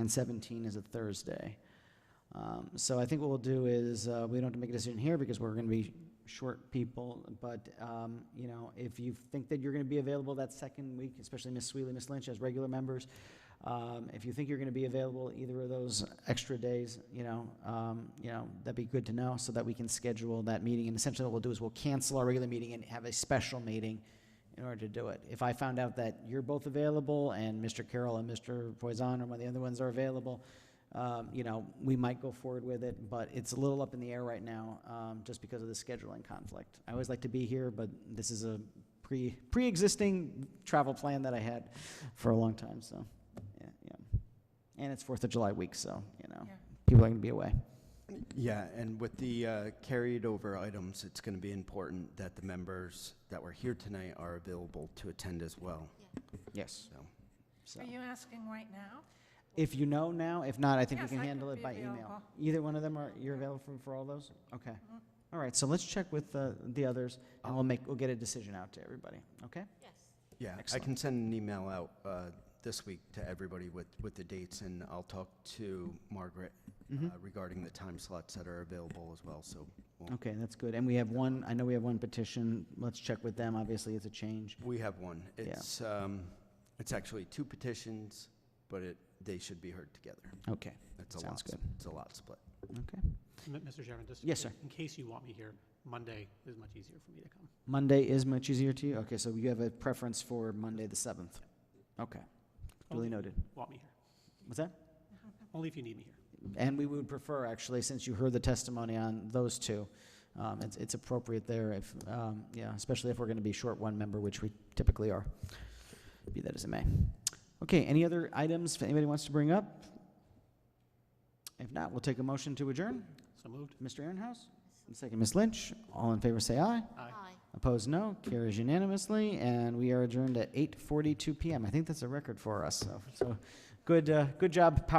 and 17 is a Thursday. Um, So I think what we'll do is, uh, we don't have to make a decision here because we're going to be short people, but, um, you know, if you think that you're going to be available that second week, especially Ms. Sweeley, Ms. Lynch as regular members, um, if you think you're going to be available either of those extra days, you know, um, you know, that'd be good to know so that we can schedule that meeting. And essentially what we'll do is we'll cancel our regular meeting and have a special meeting in order to do it. If I found out that you're both available and Mr. Carroll and Mr. Poison or one of the other ones are available, um, you know, we might go forward with it, but it's a little up in the air right now, um, just because of the scheduling conflict. I always like to be here, but this is a pre, pre-existing travel plan that I had for a long time, so, yeah, yeah. And it's Fourth of July week, so, you know, Yeah. people are gonna be away. Yeah, and with the uh, carried over items, it's going to be important that the members that were here tonight are available to attend as well, Yes. so. So, Are you asking right now? if you know now, if not, I think we Yes, can I could handle it be by email. available. Either one of them are, you're available for, for all those? Okay. All right, so let's check with the, the others, and we'll make, we'll get a decision out to everybody, okay? Yeah, I Excellent. can send an email out uh, this week to everybody with, with the dates, and I'll talk to Margaret Mhm. uh, regarding the time slots that are available as well, so. we'll- Okay, that's good. And we have one, I know we have one petition. Let's check with them. Obviously, it's a change. We have one. Yeah. It's, um, it's actually two petitions, but it, they should be heard together. Okay, It's a lot. sounds s- good. It's a lot split. M- Mr. Chairman, just. Yes, in- sir. In case you want me here, Monday is much easier for me to come. Monday is much easier to you? Okay, so you have a preference for Monday, the 7th? Okay, duly Only- noted. Want me here. What's that? Only if you need me here. And we would prefer, actually, since you heard the testimony on those two, um, it's, it's appropriate there if, um, yeah, especially if we're going to be short one member, which we typically are, be that as it may. Okay, any other items that anybody wants to bring up? If not, we'll take a motion to adjourn. So moved. Mr. Ehrenhaus? and Second, Ms. Lynch. All in favor, say aye. Aye. Opposed, no. Carries unanimously, and we are adjourned at 8:42 PM. I think that's a record for us, so, so, good, uh, good job, power.